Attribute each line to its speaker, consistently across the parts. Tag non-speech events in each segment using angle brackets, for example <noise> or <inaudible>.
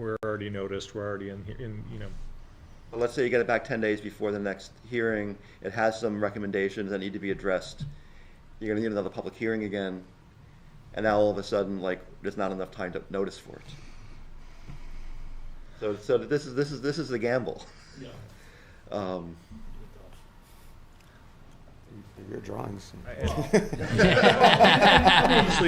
Speaker 1: we're already noticed, we're already in, in, you know,
Speaker 2: But let's say you get it back ten days before the next hearing, it has some recommendations that need to be addressed. You're gonna need another public hearing again, and now all of a sudden, like, there's not enough time to notice for it. So, so this is, this is, this is the gamble. Um,
Speaker 3: Your drawings.
Speaker 1: Honestly,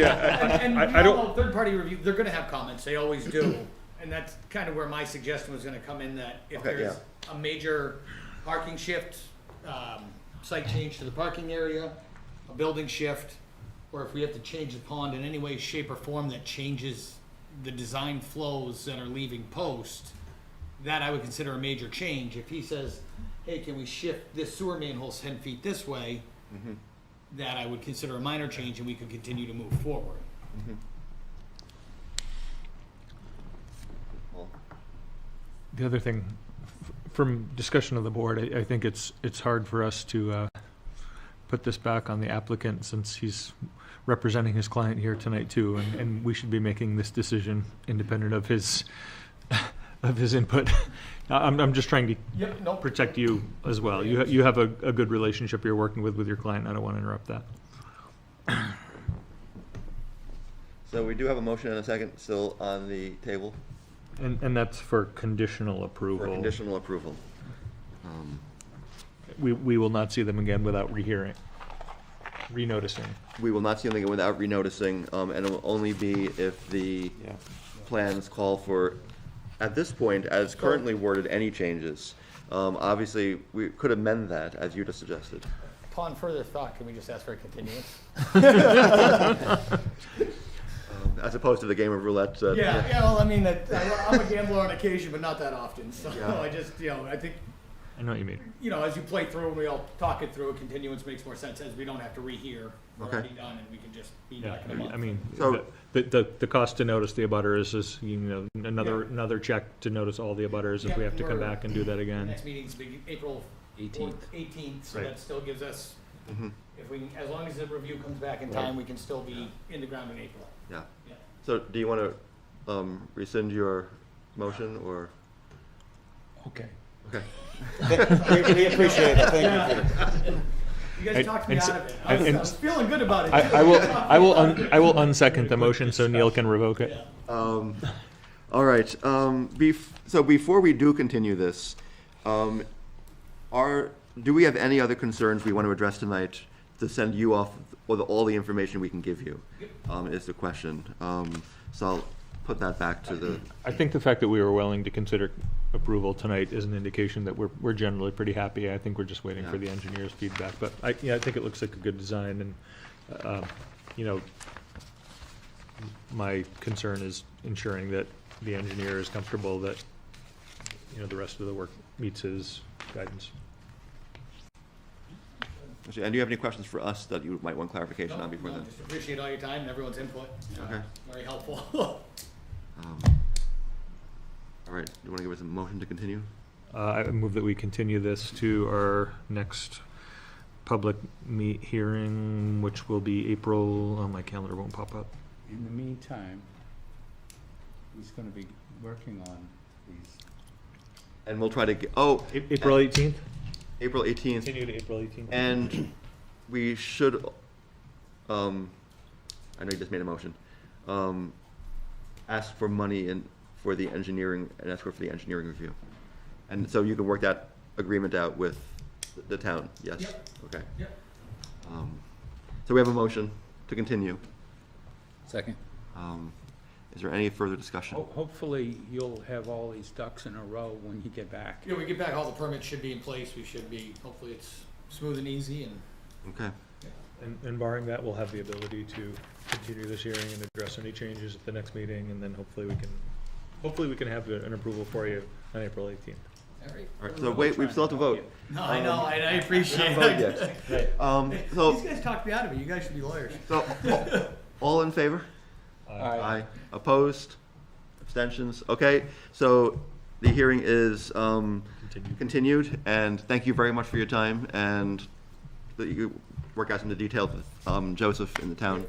Speaker 1: I- I-
Speaker 4: <laughs> And-
Speaker 1: I- I
Speaker 4: and you know,
Speaker 1: don't-
Speaker 4: Third-party review, they're gonna have comments, they always do. <clears throat> And that's kind of where my suggestion was gonna come in, that if
Speaker 2: Okay,
Speaker 4: there's a major parking shift, um, site change to the parking area, a building shift, or if we have to change the pond in any way, shape, or form that changes the design flows that are leaving post, that I would consider a major change. If he says, hey, can we shift this sewer manhole ten feet this way? Mm-hmm. That I would consider a minor change and we could continue to move forward.
Speaker 2: well,
Speaker 1: The other thing, f- from discussion of the board, I, I think it's, it's hard for us to, uh, put this back on the applicant since he's representing his client here tonight too, and, and we should be making this decision independent of his, <laughs> of his input. <laughs> I- I'm, I'm just trying to
Speaker 4: Yep, no.
Speaker 1: protect you as well. You, ha- you have a, a good relationship you're working with, with your client. I don't want to interrupt that.
Speaker 2: So we do have a motion and a second still on the table
Speaker 1: And, and that's for conditional
Speaker 2: for
Speaker 1: approval.
Speaker 2: conditional approval. Um,
Speaker 1: We, we will not see them again without rehearing, renoticing.
Speaker 2: We will not see anything without renoticing, um, and it will only be if the
Speaker 3: Yeah.
Speaker 2: plans call for, at this point, as currently worded, any changes. Um, obviously, we could amend that, as you just suggested.
Speaker 4: Upon further thought, can we just ask for a continuance?
Speaker 2: Um, As opposed to the game of roulette, uh,
Speaker 4: <laughs> Yeah, yeah, well, I mean, that, I- I'm a gambler on occasion, but not that often, so <laughs> I just, you know, I think,
Speaker 1: I know what you mean.
Speaker 4: you know, as you play through, and we all talk it through, a continuance makes more sense, as we don't have to rehear. We're
Speaker 2: Okay.
Speaker 4: already done, and we can just be
Speaker 1: Yeah,
Speaker 4: back in a month.
Speaker 1: I mean,
Speaker 2: So-
Speaker 1: the, the, the cost to notice the abutters is, you know, another,
Speaker 4: Yeah.
Speaker 1: another check to notice all the abutters if we
Speaker 4: Yeah,
Speaker 1: have to come
Speaker 4: we're-
Speaker 1: back and do that again.
Speaker 4: Next meeting's big, April.
Speaker 5: Eighteenth.
Speaker 4: Eighteenth, so
Speaker 1: Right.
Speaker 4: that still gives us,
Speaker 2: Mm-hmm.
Speaker 4: if we, as long as the review comes back in time, we can still be in the ground in April.
Speaker 2: Yeah.
Speaker 4: Yeah.
Speaker 2: So do you want to, um, rescind your motion, or?
Speaker 1: Okay.
Speaker 2: Okay.
Speaker 3: We we appreciate it, thank you.
Speaker 4: You guys
Speaker 1: And-
Speaker 4: talked me
Speaker 1: and
Speaker 4: out
Speaker 1: so-
Speaker 4: of it. I was,
Speaker 1: and-
Speaker 4: I was feeling good about it.
Speaker 1: I, I will, I will, un- I will unsecond the motion so Neil can revoke it.
Speaker 4: Yeah.
Speaker 2: Um, all right. Um, bef- so before we do continue this, um, are do we have any other concerns we want to address tonight to send you off with all the information we can give you? Um, is the question. Um, so I'll put that back to the.
Speaker 1: I think the fact that we were willing to consider approval tonight is an indication that we're, we're generally pretty happy. I think we're just waiting for
Speaker 2: Yeah.
Speaker 1: the engineer's feedback, but I, yeah, I think it looks like a good design and, um, you know, my concern is ensuring that the engineer is comfortable that, you know, the rest of the work meets his guidance.
Speaker 2: And do you have any questions for us that you might want clarification
Speaker 4: No,
Speaker 2: on before
Speaker 4: no,
Speaker 2: then?
Speaker 4: Just appreciate all your time and everyone's input. Uh,
Speaker 2: Okay.
Speaker 4: Very helpful. <laughs>
Speaker 2: Um, all right. Do you want to give us a motion to continue?
Speaker 1: Uh, I move that we continue this to our next public meet hearing, which will be April, oh, my calendar won't pop up.
Speaker 5: In the meantime, he's gonna be working on these.
Speaker 2: And we'll try to get. Oh,
Speaker 1: A- April eighteenth?
Speaker 2: April eighteenth.
Speaker 1: to April eighteenth.
Speaker 2: And we should, um, I know you just made a motion, um, ask for money and for the engineering, and ask for the engineering review. And so you can work that agreement out with the town, yes?
Speaker 4: Yep.
Speaker 2: Okay.
Speaker 4: Yep.
Speaker 2: Um, So we have a motion to continue.
Speaker 5: Second.
Speaker 2: Um, Is there any further discussion?
Speaker 5: Hopefully, you'll have all these ducks in a row when you get back.
Speaker 4: Yeah, we get back, all the permits should be in place. We should be, hopefully it's smooth and easy and.
Speaker 2: Okay.
Speaker 1: And, and barring that, we'll have the ability to continue this hearing and address any changes at the next meeting, and then hopefully we can, hopefully we can have a- an approval for you on April eighteenth.
Speaker 4: All right.
Speaker 2: All right, so wait, we still have to vote.
Speaker 4: No, I know, I, I
Speaker 2: <laughs>
Speaker 4: appreciate
Speaker 2: Vote
Speaker 4: it. <laughs>
Speaker 2: yes. Um,
Speaker 4: These
Speaker 2: so,
Speaker 4: guys talked me out of it. You guys should be lawyers.
Speaker 2: so, <laughs> all- all in favor?
Speaker 5: Aye.
Speaker 2: Aye. Opposed? Abstentions? Okay, so the hearing is um,
Speaker 1: Continued.
Speaker 2: continued, and thank you very much for your time, and that you work out some of the details with um, Joseph in the town.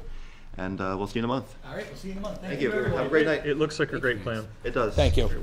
Speaker 4: and uh, we'll see you in a month.
Speaker 2: All right, we'll see you in a month.
Speaker 4: Thank
Speaker 2: Thank
Speaker 4: you.
Speaker 2: you, everyone.
Speaker 4: Have a great night.
Speaker 1: It looks like a great plan.
Speaker 4: It does.
Speaker 5: Thank you.